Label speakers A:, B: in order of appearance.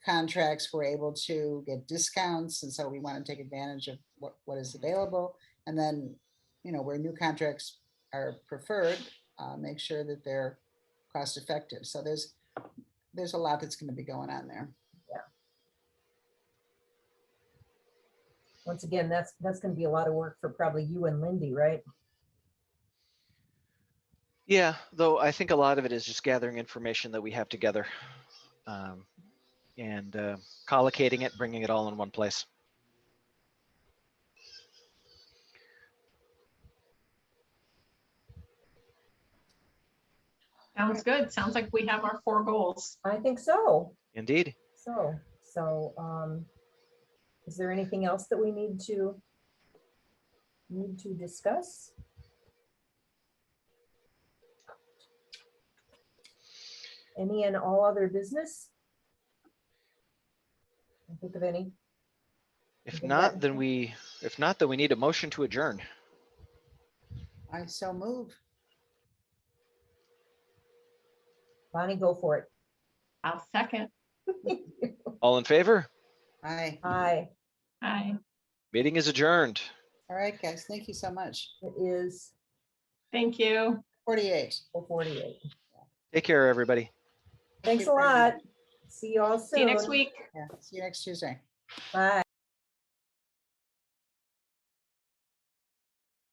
A: contracts, we're able to get discounts, and so we want to take advantage of what, what is available. And then, you know, where new contracts are preferred, uh, make sure that they're cost effective. So there's, there's a lot that's going to be going on there.
B: Once again, that's, that's gonna be a lot of work for probably you and Lindy, right?
C: Yeah, though I think a lot of it is just gathering information that we have together um, and uh, collocating it, bringing it all in one place.
D: Sounds good. Sounds like we have our four goals.
B: I think so.
C: Indeed.
B: So, so, um, is there anything else that we need to need to discuss? Any and all other business? Can't Think of any?
C: If
B: Okay,
C: not,
B: that-
C: then we if not, then we need a motion to adjourn.
A: I so move.
B: Bonnie, go for it.
D: I'll second.
C: All in favor?
A: Aye.
B: Hi,
D: Hi,
C: Meeting is adjourned.
A: All right, guys, thank you so much.
B: it is
D: thank you.
A: Forty-eight.
B: four forty-eight.
C: Take care, everybody.
B: Thanks
A: you
B: a
A: very
B: lot.
A: much.
B: See you all soon.
D: See you next week.
A: Yeah, see you next Tuesday.
B: Bye.